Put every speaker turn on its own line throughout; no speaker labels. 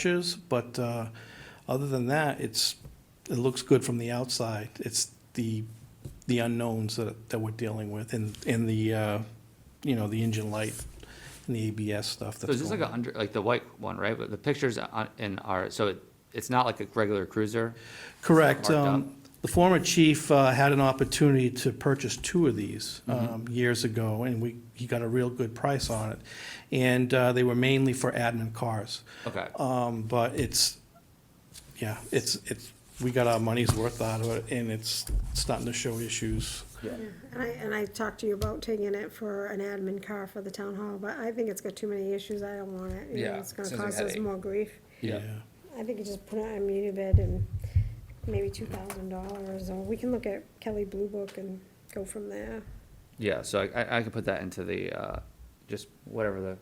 pictures, but uh, other than that, it's, it looks good from the outside. It's the, the unknowns that, that we're dealing with and, and the, uh, you know, the engine light and the ABS stuff
So
that's
is this like
going
a
on.
under, like the white one, right? But the pictures on, in our, so it, it's not like a regular cruiser?
Correct.
marked
Um, The former chief uh, had an opportunity to purchase two of these
Mm-hmm.
um, years ago, and we, he got a real good price on it. And uh, they were mainly for admin cars.
Okay,
Um, but it's, yeah, it's, it's, we got our money's worth out of it, and it's starting to show issues.
And I, and I talked to you about taking it for an admin car for the town hall, but I think it's got too many issues, I don't want it. you know,
Yeah,
It's gonna
sounds like
cause us
headache.
more grief.
Yeah.
I think you just put it on Unibid and maybe two thousand dollars, or we can look at Kelly Blue Book and go from there.
yeah, so I- I, I can put that into the, uh, just whatever the,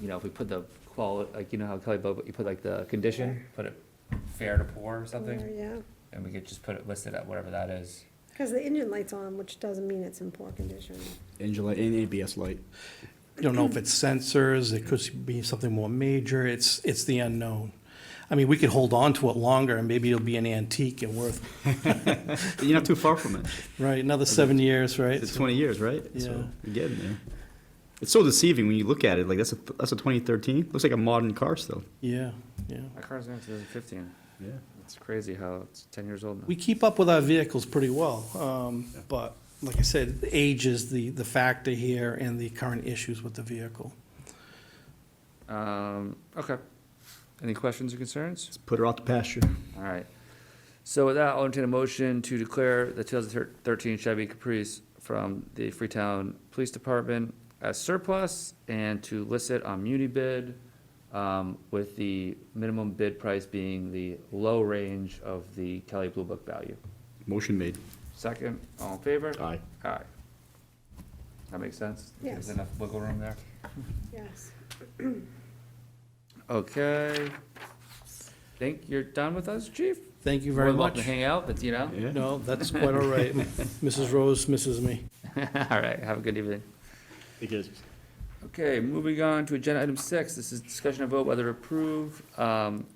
you know, if we put the quali, like, you know how Kelly Bob, you put like the condition,
Put it fair to poor or
Or,
something,
Yeah,
and we could just put it listed at whatever that is.
cause the engine light's on, which doesn't mean it's in poor condition.
Angel light and ABS light.
You don't know if it's sensors, it could be something more major, it's, it's the unknown. I mean, we could hold on to it longer, and maybe it'll be an antique and worth,
You're not too far from it.
right, another seven years, right?
It's 20 years, right?
Yeah.
So you're getting there. It's so deceiving when you look at it. Like that's a that's a 2013. Looks like a modern car still.
Yeah, yeah.
my car's going to two thousand fifteen.
Yeah.
It's crazy how it's ten years old now.
We keep up with our vehicles pretty well, um, but like I said, age is the, the factor here and the current issues with the vehicle.
Um, okay. Any questions or concerns?
Let's put her out to pasture.
All right. So with that, I'll entertain a motion to declare the two thousand thirteen Chevy Caprice from the Freetown Police Department as surplus and to list it on muni bid, um, with the minimum bid price being the low range of the Kelly Blue Book value.
Motion made.
Second, all in favor?
Aye.
Aye. That makes sense? There's
Yes.
enough wiggle room there?
Yes.
Okay. Think you're done with us, chief?
Thank you very
More than welcome
much.
to Hang out, but you know?
Yeah.
No, that's quite all right. Mrs. Rose misses me.
All right, have a good evening. Okay, moving on to agenda item six, this is discussion of vote whether to approve, um,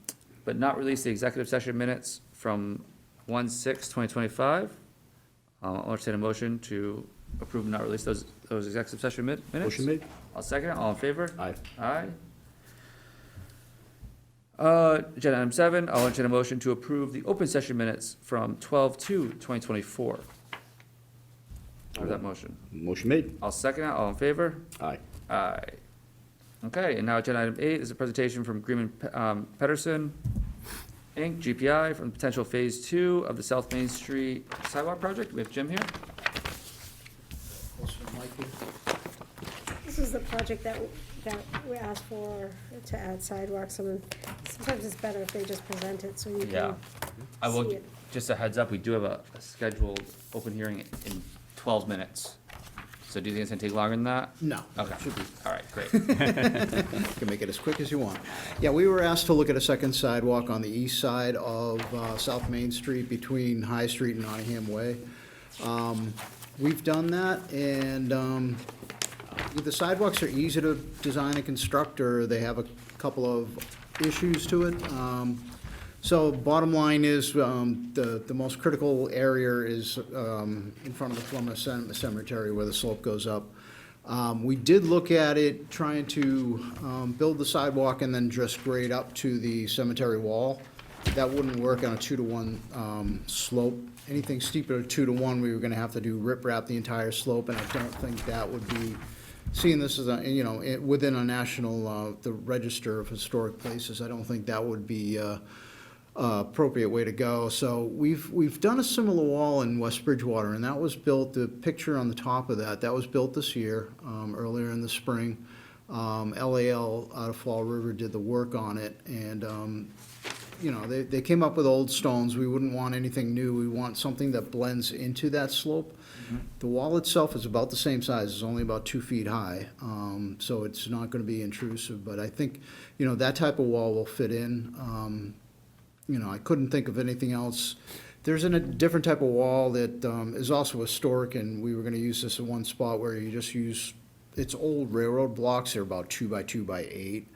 but not release the executive session minutes from one six twenty twenty-five. I'll entertain a motion to approve and not release those, those executive session min- minutes.
Motion made.
I'll second it, all in favor?
Aye.
Aye. Uh, agenda item seven, I'll entertain a motion to approve the open session minutes from twelve two twenty twenty-four. Or that motion.
Motion made.
I'll second it, all in favor?
Aye.
Aye. Uh, Okay, and now agenda item eight is a presentation from Greenman um, Pedersen, Inc., GPI, from potential phase two of the South Main Street sidewalk project. We have Jim here.
This is the project that, that we asked for to add sidewalks, and sometimes it's better if they just present it so you can.
Yeah. I
See
will,
it.
just a heads up, we do have a a scheduled open hearing in twelve minutes. So do you think it's gonna take longer than that?
No.
Okay,
Should be.
all right, great.
You can make it as quick as you want. Yeah, we were asked to look at a second sidewalk on the east side of uh, South Main Street between High Street and Nottingham Way. Um, We've done that, and um, the sidewalks are easy to design and construct, or they have a couple of issues to it. Um, So bottom line is, um, the, the most critical area is um, in front of the Plymouth Cem- Cemetery where the slope goes up. Um, We did look at it, trying to um, build the sidewalk and then just grade up to the cemetery wall. That wouldn't work on a two-to-one um, slope. Anything steeper than two-to-one, we were gonna have to do riprap the entire slope, and I don't think that would be, seeing this as a, you know, it- within a national, uh, the Register of Historic Places, I don't think that would be uh, uh, appropriate way to go. So we've, we've done a similar wall in West Bridgewater, and that was built, the picture on the top of that, that was built this year, um, earlier in the spring. Um, LAL out of Fall River did the work on it, and, um, you know, they, they came up with old stones. We wouldn't want anything new. We want something that blends into that slope. The wall itself is about the same size. It's only about two feet high. Um, so it's not gonna be intrusive, but I think, you know, that type of wall will fit in. Um, you know, I couldn't think of anything else. There's an- a different type of wall that um, is also historic, and we were gonna use this in one spot where you just use, it's old railroad blocks, they're about two by two by eight.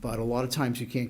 But a lot of times you can't